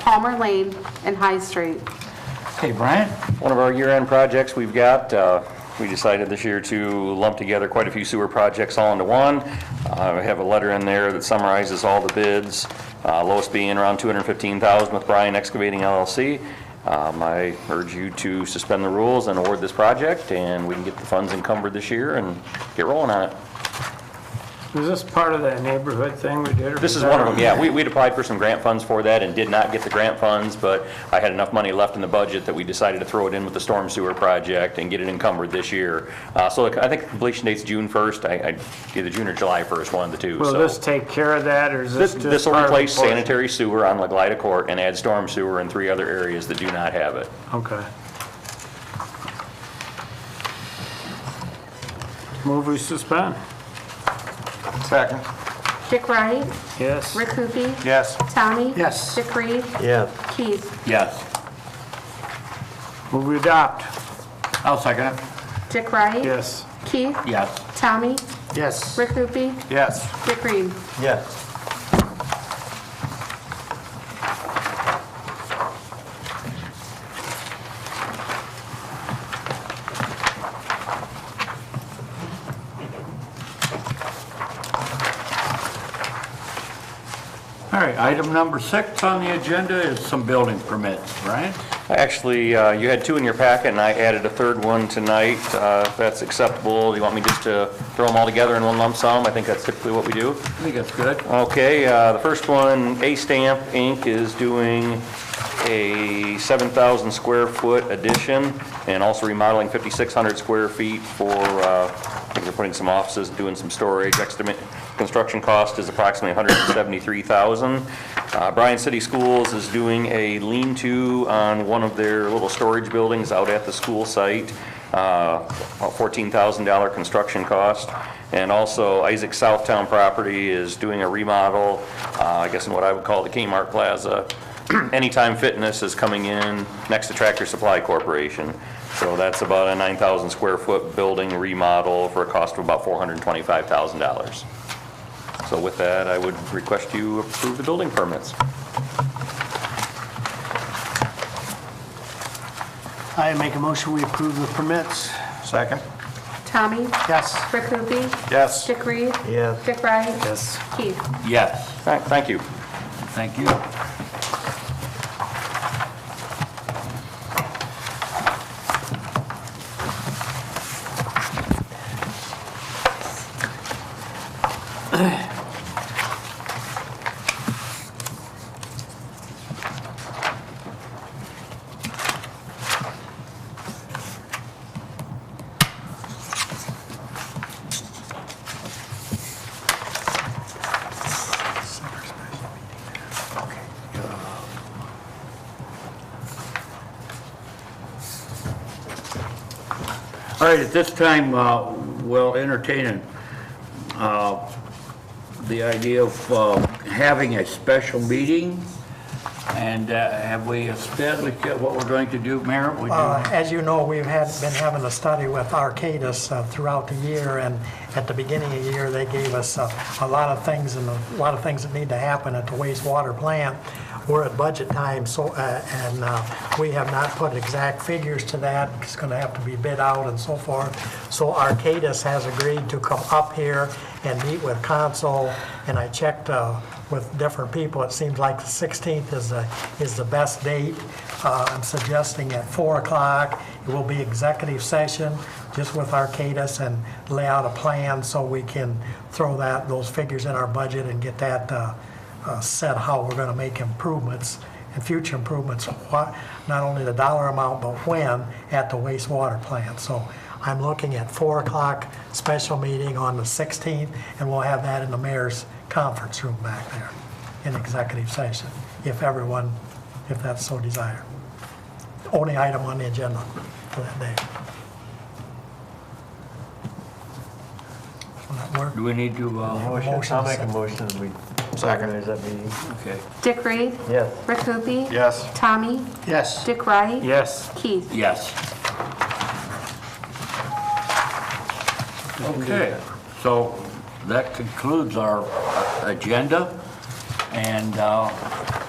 Palmer Lane, and High Street. Okay, Brian? One of our year-end projects we've got, uh, we decided this year to lump together quite a few sewer projects all into one. Uh, I have a letter in there that summarizes all the bids, uh, lowest being around 215,000 with Bryan Excavating LLC. Um, I urge you to suspend the rules and award this project, and we can get the funds encumbered this year and get rolling on it. Is this part of that neighborhood thing we did? or This was is that one of them, a- yeah. We, we'd applied for some grant funds for that and did not get the grant funds, but I had enough money left in the budget that we decided to throw it in with the storm sewer project and get it encumbered this year. Uh, so I think completion date's June 1st, I, I, either June or July 1st, one of the two, Will so. this take care of that, or is this This, just? this will part of the replace portion? sanitary sewer on Leglida Court and add storm sewer in three other areas that do not have it. Okay. Move we suspend? Second. Dick Wright, Yes. Rick Hoopie. Yes. Tommy. Yes. Dick Reed. Yeah. Keith. Yes. Move we adopt? I'll second it. Dick Wright. Yes. Keith. Yes. Tommy. Yes. Rick Hoopie. Yes. Dick Reed. Yes. All right, item number six on the agenda is some building permits, Brian? Actually, uh, you had two in your packet, and I added a third one tonight. Uh, If that's acceptable, you want me just to throw them all together in one lump sum? I think that's typically what we I do. think that's good. Okay, uh, the first one, A Stamp Inc. is doing a 7,000 square foot addition and also remodeling 5,600 square feet for, uh, I think they're putting some offices, doing some storage. Estimate- Construction cost is approximately 173,000. Uh, Bryan City Schools is doing a lean-to on one of their little storage buildings out at the school site uh, a $14,000 construction cost. And also Isaac Southtown property is doing a remodel, uh, I guess in what I would call the Kmart Plaza. Anytime Fitness is coming in next to Tractor Supply Corporation. So that's about a 9,000 square foot building remodel for a cost of about $425,000. So with that, I would request you approve the building permits. I make a motion, we approve the permits. Second. Tommy. Yes. Rick Hoopie. Yes. Dick Reed. Yeah. Dick Wright. Yes. Keith. Yes, All right, Thank you. thank you. All right, at this time, uh, we'll entertain uh, the idea of uh, having a special meeting. And uh, have we established yet what we're going to do, Mayor? Would you- Uh, As you know, we've had, been having a study with Arcadis uh, throughout the year, and at the beginning of the year, they gave us uh, a lot of things and a lot of things that need to happen at the wastewater plant. We're at budget time, so, uh, and uh, we have not put exact figures to that. It's going to have to be bid out and so forth. So Arcadis has agreed to come up here and meet with council, and I checked uh, with different people, it seems like the 16th is the, is the best date. Uh, I'm suggesting at 4 o'clock, it will be executive session, just with Arcadis, and lay out a plan so we can throw that, those figures in our budget and get that uh, uh, set, how we're going to make improvements and future improvements, what- not only the dollar amount, but when, at the wastewater plant. So I'm looking at 4 o'clock special meeting on the 16th, and we'll have that in the mayor's conference room back there in executive session, if everyone, if that's so desired. Only item on the agenda for that day. Will that work? Do we need to, uh, Motion. I'll make a motion, that we organize that meeting. okay, Dick Reed. Yes. Rick Hoopie. Yes. Tommy. Yes. Dick Wright. Yes. Keith. yes. Okay, so that concludes our uh, agenda, and uh,